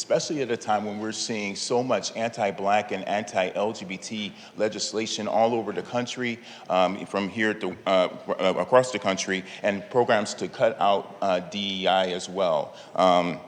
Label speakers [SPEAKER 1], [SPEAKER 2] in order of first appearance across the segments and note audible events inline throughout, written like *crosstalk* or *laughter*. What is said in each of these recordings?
[SPEAKER 1] especially at a time when we're seeing so much anti-black and anti-LGBT legislation all over the country, um, from here to uh, uh, across the country, and programs to cut out uh, DEI as well. Um,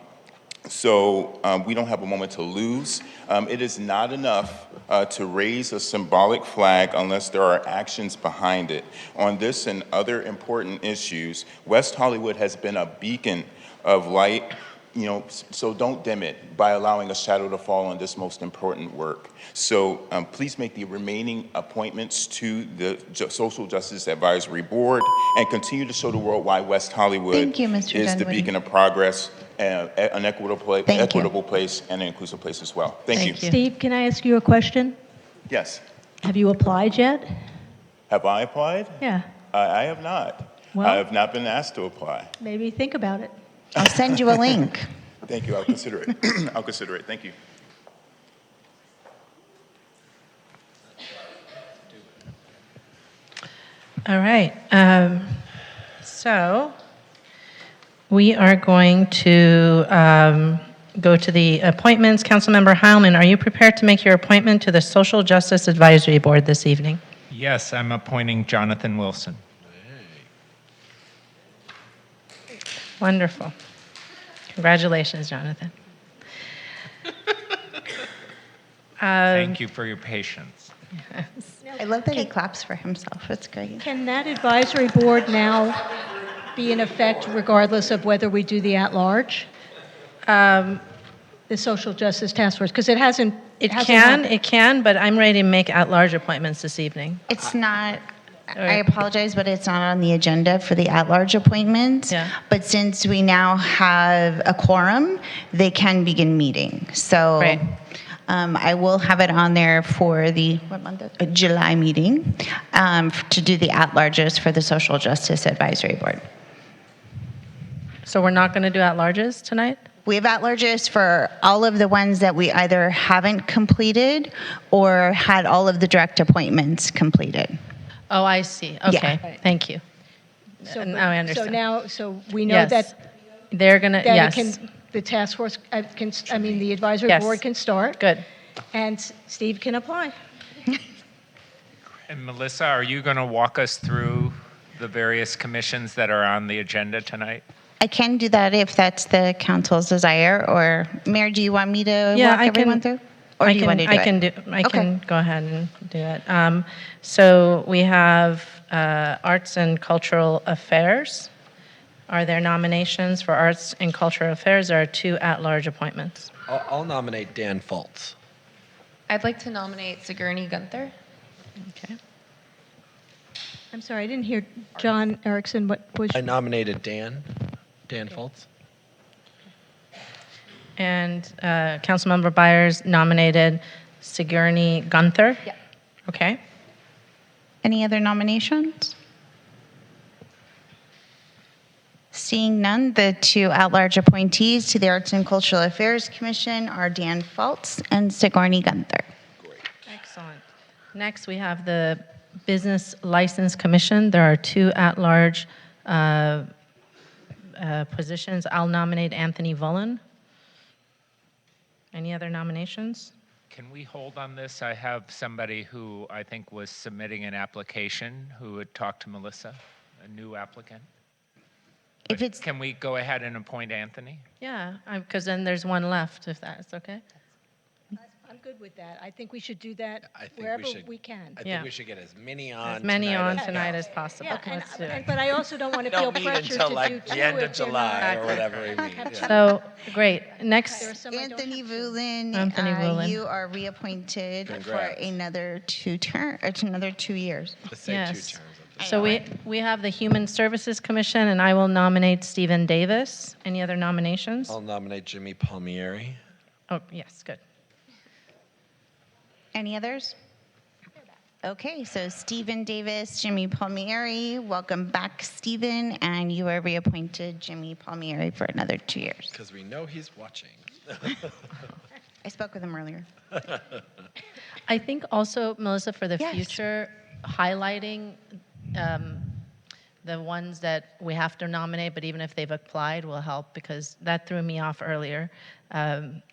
[SPEAKER 1] so um, we don't have a moment to lose. Um, it is not enough uh, to raise a symbolic flag unless there are actions behind it. On this and other important issues, West Hollywood has been a beacon of light. You know, s- so don't dim it by allowing a shadow to fall on this most important work. So um, please make the remaining appointments to the Ju- Social Justice Advisory Board and continue to show the world why West Hollywood
[SPEAKER 2] Thank you, Mr.
[SPEAKER 1] is the
[SPEAKER 2] Dunwoody.
[SPEAKER 1] beacon of progress, and an equitable place,
[SPEAKER 2] Thank you.
[SPEAKER 1] equitable place, and an inclusive place as well. Thank you.
[SPEAKER 2] Thank you.
[SPEAKER 3] Steve, can I ask you a question?
[SPEAKER 1] Yes.
[SPEAKER 3] Have you applied yet?
[SPEAKER 1] Have I applied?
[SPEAKER 3] Yeah,
[SPEAKER 1] I, I have not.
[SPEAKER 3] Well-
[SPEAKER 1] I have not been asked to apply.
[SPEAKER 3] maybe think about it.
[SPEAKER 2] I'll send you a link.
[SPEAKER 1] Thank you. I'll consider
[SPEAKER 2] *coughs*
[SPEAKER 1] it. I'll consider it. Thank you.
[SPEAKER 4] All right, um, so we are going to um, go to the appointments. Councilmember Heilman, are you prepared to make your appointment to the Social Justice Advisory Board this evening?
[SPEAKER 5] Yes, I'm appointing Jonathan Wilson.
[SPEAKER 4] Wonderful. Congratulations, Jonathan.
[SPEAKER 5] Thank you for your patience.
[SPEAKER 2] I love that he claps for himself. It's great.
[SPEAKER 3] Can that advisory board now be in effect regardless of whether we do the at-large?
[SPEAKER 4] Um,
[SPEAKER 3] The Social Justice Task Force, because it hasn't.
[SPEAKER 4] It
[SPEAKER 3] hasn't
[SPEAKER 4] can,
[SPEAKER 3] happened.
[SPEAKER 4] it can, but I'm ready to make at-large appointments this evening.
[SPEAKER 2] It's not, I
[SPEAKER 4] right.
[SPEAKER 2] apologize, but it's not on the agenda for the at-large appointments.
[SPEAKER 4] Yeah.
[SPEAKER 2] But since we now have a quorum, they can begin meeting. So
[SPEAKER 4] Right.
[SPEAKER 2] um, I will have it on there for the, what month? is- uh, July meeting um, f- to do the at-larges for the Social Justice Advisory Board.
[SPEAKER 4] So we're not going to do at-larges tonight?
[SPEAKER 2] We have at-larges for all of the ones that we either haven't completed or had all of the direct appointments completed.
[SPEAKER 4] Oh, I see, okay, thank you.
[SPEAKER 3] So-
[SPEAKER 4] Now oh, I
[SPEAKER 3] So
[SPEAKER 4] understand.
[SPEAKER 3] now, so we know
[SPEAKER 4] Yes.
[SPEAKER 3] that,
[SPEAKER 4] They're going to,
[SPEAKER 3] that it
[SPEAKER 4] yes.
[SPEAKER 3] can, the task force uh, can, I mean, the advisory
[SPEAKER 4] Yes.
[SPEAKER 3] board can start.
[SPEAKER 4] Good.
[SPEAKER 3] And S- Steve can apply.
[SPEAKER 5] And Melissa, are you going to walk us through the various commissions that are on the agenda tonight?
[SPEAKER 2] I can do that if that's the council's desire, or Mayor, do you want me to walk everyone through? Or
[SPEAKER 4] I
[SPEAKER 2] do you
[SPEAKER 4] can-
[SPEAKER 2] want to do
[SPEAKER 4] I
[SPEAKER 2] it?
[SPEAKER 4] can do. I
[SPEAKER 2] Okay.
[SPEAKER 4] can go ahead and do it. Um, so we have uh, arts and cultural affairs. Are there nominations for arts and cultural affairs? There are two at-large appointments.
[SPEAKER 6] I'll, I'll nominate Dan Fultz.
[SPEAKER 7] I'd like to nominate Sigourney Gunther.
[SPEAKER 4] Okay.
[SPEAKER 3] I'm sorry, I didn't hear John Erickson, what was?
[SPEAKER 6] I nominated Dan. Dan Fultz.
[SPEAKER 4] And uh, Councilmember Byers nominated Sigourney Gunther.
[SPEAKER 7] Yeah.
[SPEAKER 4] Okay.
[SPEAKER 2] Any other nominations? Seeing none, the two at-large appointees to the Arts and Cultural Affairs Commission are Dan Fultz and Sigourney Gunther.
[SPEAKER 4] Excellent. Next, we have the Business License Commission. There are two at-large uh, uh, positions. I'll nominate Anthony Vullen. Any other nominations?
[SPEAKER 5] Can we hold on this? I have somebody who I think was submitting an application who had talked to Melissa, a new applicant.
[SPEAKER 2] If it's,
[SPEAKER 5] Can we go ahead and appoint Anthony?
[SPEAKER 4] Yeah, because then there's one left, if that's okay.
[SPEAKER 3] I'm good with that. I think we should do that
[SPEAKER 6] I think
[SPEAKER 3] wherever
[SPEAKER 6] we should.
[SPEAKER 3] we can.
[SPEAKER 6] I
[SPEAKER 4] Yeah.
[SPEAKER 6] think we should get as many on.
[SPEAKER 4] As many
[SPEAKER 6] tonight
[SPEAKER 4] on
[SPEAKER 6] as
[SPEAKER 4] tonight as possible.
[SPEAKER 3] Yeah, and,
[SPEAKER 4] Let's do
[SPEAKER 3] and-
[SPEAKER 4] it.
[SPEAKER 3] but I also don't
[SPEAKER 6] *laughs*
[SPEAKER 3] want to feel
[SPEAKER 6] possible. Don't meet
[SPEAKER 3] pressure
[SPEAKER 6] until
[SPEAKER 3] to do
[SPEAKER 6] like
[SPEAKER 3] two
[SPEAKER 6] the end
[SPEAKER 3] if
[SPEAKER 6] of
[SPEAKER 3] they're
[SPEAKER 6] July or
[SPEAKER 3] not.
[SPEAKER 6] whatever
[SPEAKER 3] *laughs*
[SPEAKER 6] we meet. yeah.
[SPEAKER 4] So, great.
[SPEAKER 3] There are
[SPEAKER 4] Next,
[SPEAKER 3] some I don't
[SPEAKER 2] Anthony
[SPEAKER 3] have.
[SPEAKER 2] Vulin,
[SPEAKER 4] Anthony
[SPEAKER 2] uh,
[SPEAKER 4] Vulin.
[SPEAKER 2] you are reappointed for
[SPEAKER 6] Congrats.
[SPEAKER 2] another two term, or another two years.
[SPEAKER 6] Let's say
[SPEAKER 4] yes.
[SPEAKER 6] two terms. Of
[SPEAKER 4] So we, we have the Human Services Commission, and I will nominate Stephen Davis. Any other nominations?
[SPEAKER 6] I'll nominate Jimmy Palmieri.
[SPEAKER 4] Oh, yes, good.
[SPEAKER 2] Any others? Okay, so Stephen Davis, Jimmy Palmieri, welcome back, Stephen, and you are reappointed Jimmy Palmieri for another two years.
[SPEAKER 6] Because we know he's watching.
[SPEAKER 2] I spoke with him earlier.
[SPEAKER 4] I think also, Melissa, for the
[SPEAKER 2] Yes.
[SPEAKER 4] future, highlighting um, the ones that we have to nominate, but even if they've applied, will help because that threw me off earlier. Um,